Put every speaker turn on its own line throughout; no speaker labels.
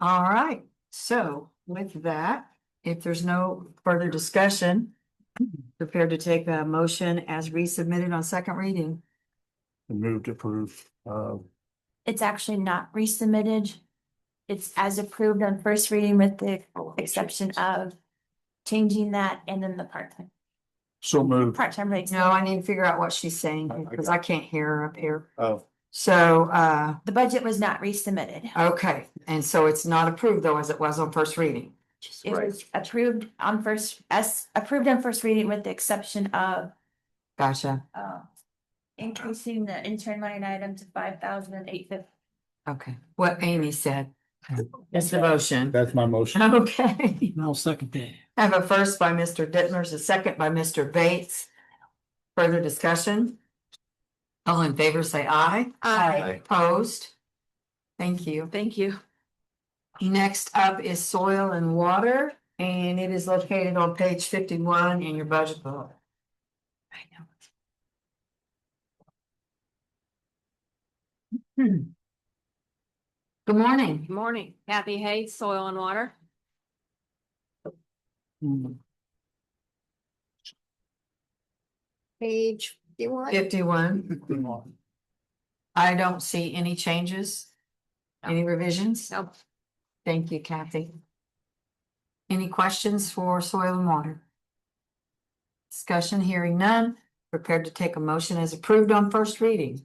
All right, so with that, if there's no further discussion, prepared to take a motion as resubmitted on second reading.
Move to approve, uh,
It's actually not resubmitted. It's as approved on first reading with the exception of changing that and then the part-time,
so move.
part-time rates.
No, I need to figure out what she's saying because I can't hear her up here.
Oh,
So, uh,
The budget was not resubmitted.
okay, and so it's not approved though, as it was on first reading.
It was approved on first, as approved on first reading with the exception of
Gotcha.
uh, increasing the intern line item to five thousand and eight fifty.
Okay, what Amy said. That's the motion.
that's my motion.
Okay.
I'll second that.
I have a first by Mr. Dittmers, a second by Mr. Bates. Further discussion? All in favor, say aye.
Aye.
Aye.
Opposed? Thank you.
Thank you.
Next up is soil and water, and it is located on page fifty-one in your budget book. Hmm. Good morning.
Good morning, Kathy Hayes, Soil and Water. Page fifty-one.
Fifty-one. I don't see any changes. Any revisions?
Nope.
Thank you, Kathy. Any questions for soil and water? Discussion, hearing none, prepared to take a motion as approved on first reading.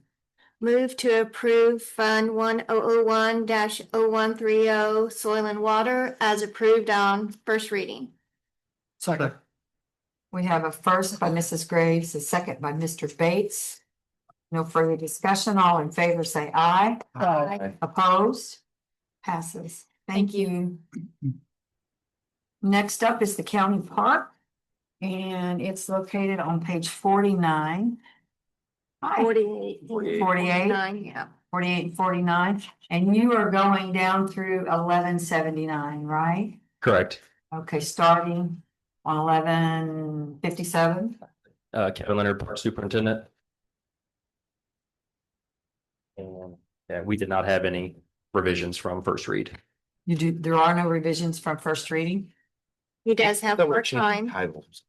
Move to approve Fund one oh oh one dash oh one three oh Soil and Water as approved on first reading.
Second.
We have a first by Mrs. Graves, a second by Mr. Bates. No further discussion, all in favor say aye.
Aye.
Opposed? Passes. Thank you. Next up is the county park. And it's located on page forty-nine. Hi,
Forty-eight.
Forty-eight.
Nine, yeah.
forty-eight and forty-nine, and you are going down through eleven seventy-nine, right?
Correct.
Okay, starting on eleven fifty-seven.
Uh, Kevin Leonard, Park Superintendent. And, yeah, we did not have any revisions from first read.
You do, there are no revisions from first reading?
He does have more time.
Titles.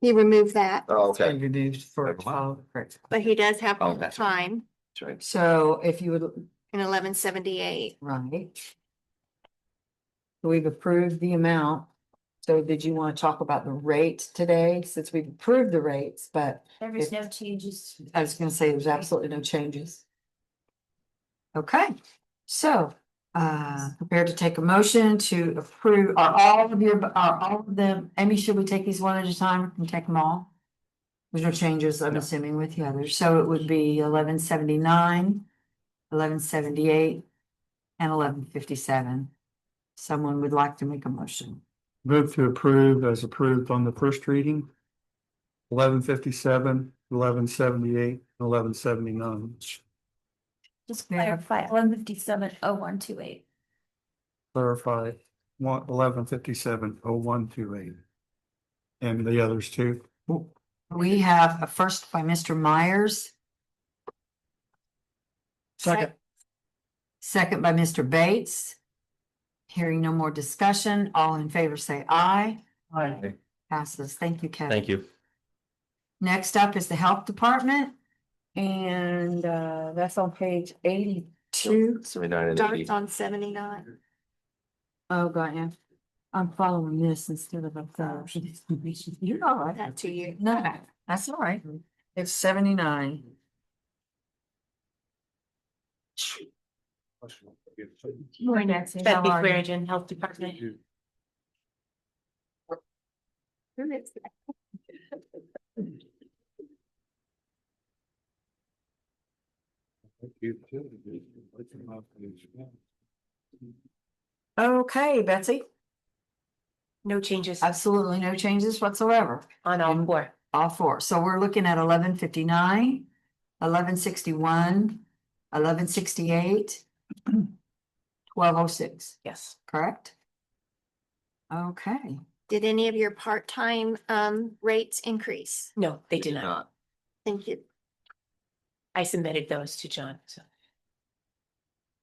He removed that,
Oh, okay.
Removed for.
Never mind.
correct.
but he does have
Oh,
more
that's-
time
That's right.
So if you would,
in eleven seventy-eight.
right. We've approved the amount. So did you want to talk about the rate today, since we've approved the rates, but
There was no changes.
I was gonna say there's absolutely no changes. Okay, so, uh, prepared to take a motion to approve, are all of your, are all of them, Amy, should we take these one at a time and take them all? There's no changes, I'm assuming with the others, so it would be eleven seventy-nine, eleven seventy-eight, and eleven fifty-seven. Someone would like to make a motion.
Move to approve as approved on the first reading. Eleven fifty-seven, eleven seventy-eight, eleven seventy-nine.
Just
Yeah.
clarify, one fifty-seven oh one two eight.
Clarify, one, eleven fifty-seven, oh, one, two, eight. And the others too.
We have a first by Mr. Myers,
Second.
Second by Mr. Bates. Hearing no more discussion, all in favor say aye.
Aye.
Passes. Thank you, Kathy.
Thank you.
Next up is the Health Department. And uh, that's on page eighty-two.
Seventy-nine and eighty.
Starts on seventy-nine.
Oh, got you. I'm following this instead of a thousand. You're all right.
That to you.
No, that's all right. It's seventy-nine.
That'd be Clarion Health Department.
Okay, Betsy.
No changes
Absolutely no changes whatsoever.
on all four.
All four, so we're looking at eleven fifty-nine, eleven sixty-one, eleven sixty-eight, twelve oh six,
Yes.
correct? Okay,
Did any of your part-time um rates increase?
No, they did not.
Thank you.
I submitted those to John, so.